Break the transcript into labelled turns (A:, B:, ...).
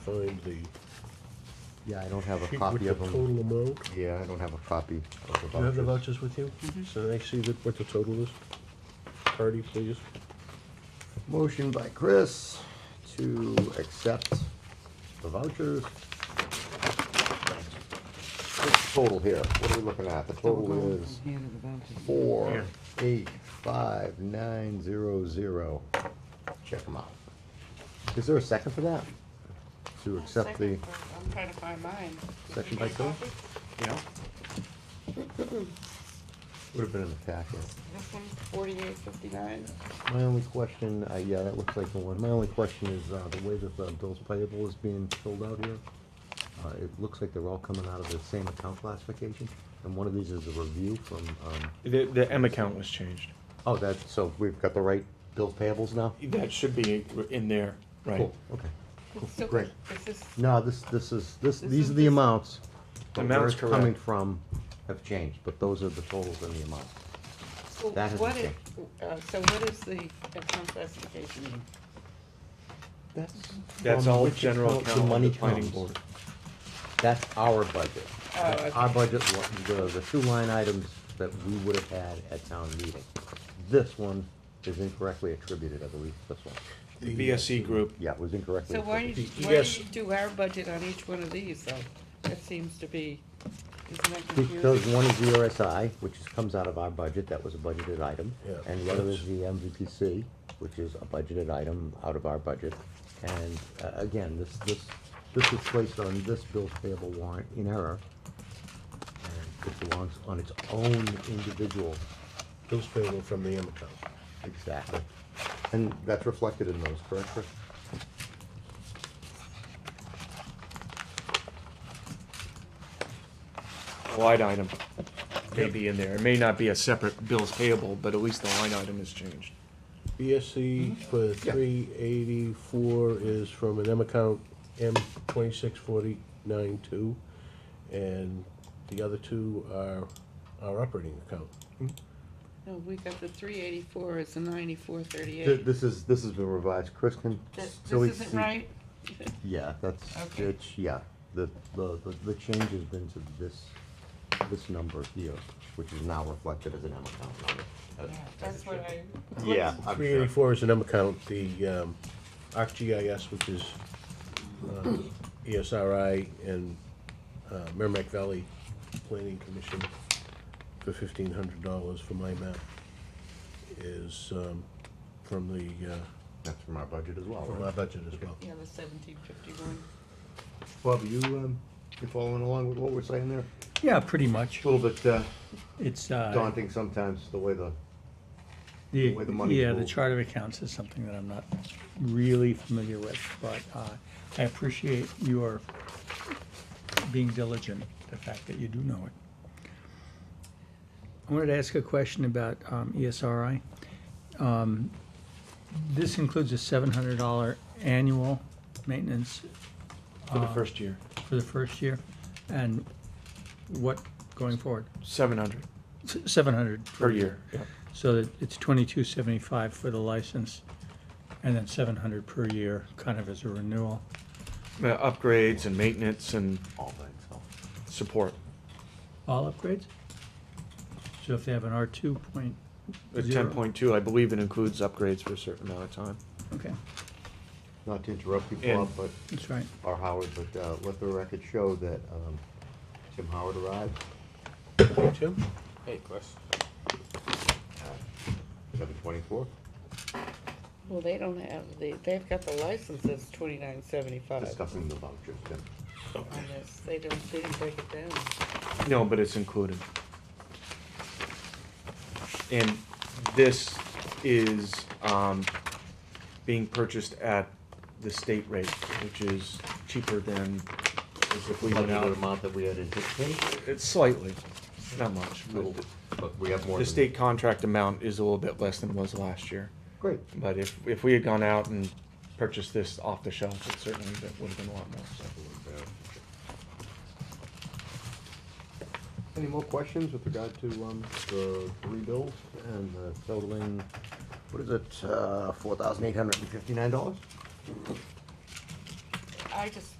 A: find the
B: Yeah, I don't have a
A: sheet with
B: copy
A: the
B: of them.
A: total amount.
B: Yeah, I don't have a copy of the
A: Do you have the
B: vouchers.
A: vouchers with you? So I see that what the total is. Cardy, please.
B: Motion by Chris to accept the vouchers. What's the total here? What are we looking at? The total is
C: Hand of the voucher.
B: four, eight, five, nine, zero, zero. Check them out. Is there a second for that? To accept the,
D: Second, I'm trying to find mine. Did
B: Second
D: you
B: by
D: get a
B: Phil?
D: copy?
B: yeah? Would have been an attack, yeah.
D: This one's forty-eight fifty-nine.
B: My only question, uh, yeah, that looks like the one, my only question is, uh, the way that the bills payable is being filled out here, uh, it looks like they're all coming out of the same account classification, and one of these is a review from, um,
E: The, the M account was changed.
B: oh, that, so we've got the right bills payables now?
E: That should be in there, right?
B: Cool, okay.
D: So
B: Great.
D: This is,
B: No, this, this is, this,
D: This
B: these
D: is
B: are the
D: this-
B: amounts. but where
E: Amounts
B: it's Coming
E: correct.
B: from have changed, but those are the totals and the amounts.
D: so
B: That hasn't
D: what is, uh, so what is the account classification? mean?
B: That's.
E: That's
B: from
E: all
B: which
E: general
B: account
E: account of
B: money
E: the planning
B: comes.
E: board.
B: That's our budget.
D: Oh, okay.
B: Our budget, wa- the, the two line items that we would have had at town meeting. This one is incorrectly attributed, I believe, this one.
E: The BSE
A: uh,
E: group,
B: Yeah, it was incorrectly
D: So why do
B: attributed.
D: you,
A: The
D: why
A: ES
D: do you do our budget on each one of these though? That seems to be, isn't that
B: Because
D: confusing?
B: one is the RSI, which is- comes out of our budget, that was a budgeted item.
A: Yeah.
B: And the other is the MVPC, which is a budgeted item out of our budget. And uh, again, this, this, this was placed on this bill's payable warrant in error. And it belongs on its own individual
A: Bills payable from the M account.
B: Exactly. And that's reflected in those, correct, Chris?
E: the line item may be in there. It may not be a separate bills payable, but at least the line item is changed. Mm-hmm.
A: BSC for three eighty-four is from an M account, M twenty-six forty-nine two. And the other two are our operating account.
D: No, we got the three eighty-four, it's a ninety-four thirty-eight.
B: This is, this has been revised, Chris can.
D: This
B: so we
D: isn't
B: see-
D: right?
B: Yeah, that's,
D: Okay.
B: it's, yeah, the, the, the- the change has been to this, this number here, which is now reflected as an M account number. as-
D: Yeah,
B: as
D: That's
B: it
D: what
B: should.
D: I,
B: Yeah, I'm
A: Three
B: sure.
A: eighty-four is an M account, the, um, ArcGIS, which is, uh, ESRI and, uh, Merrimack Valley Planning Commission for fifteen hundred dollars for my map is, um, from the, uh,
B: That's from our budget as well,
A: from our
B: right?
A: budget as well.
D: yeah, the seventeen fifty-one.
B: Bob, you, um, you following along with what we're saying there?
F: Yeah, pretty much.
B: A little bit uh,
F: It's, uh,
B: daunting sometimes, the way the,
F: the,
B: way the money's
F: yeah, the
B: moved.
F: chart of accounts is something that I'm not really familiar with, but, uh, I appreciate your being diligent, the fact that you do know it. I wanted to ask a question about, um, ESRI. Um, this includes a seven hundred dollar annual maintenance
E: For the first year,
F: for the first year, and what going forward?
E: seven hundred
F: Seven hundred
E: per year. yeah.
F: So that it's twenty-two seventy-five for the license, and then seven hundred per year, kind of as a renewal.
E: Uh, Upgrades and maintenance and
B: all by itself.
E: support.
F: All upgrades? So if they have an R two point,
E: At
F: Zero.
E: ten point two, I believe it includes upgrades for a certain amount of time.
F: okay,
B: Not to interrupt you,
E: And-
B: Bob, but
F: that's right.
B: or Howard, but uh, let the record show that um, Tim Howard arrived
A: Tim?
D: Hey, Chris.
B: seven twenty-four.
D: Well, they don't have, they, they've got the license that's twenty-nine seventy-five
B: Discussing the vouchers, Tim.
D: on this, they don't, they didn't break it down.
E: No, but it's included. And this is, um, being purchased at the state rate, which is cheaper than if we went
B: Budgeted
E: out.
B: amount that we had anticipated,
E: It's slightly, not much,
B: but-
E: but
B: but we have more.
E: the
B: than-
E: state contract amount is a little bit less than was last year.
B: Great,
E: But if, if we had gone out and purchased this off the shelf, it certainly would have been a lot more, so.
B: any more questions with regard to um, the three bills and the totaling, what is uh, it, four thousand eight hundred and fifty-nine dollars?
D: I just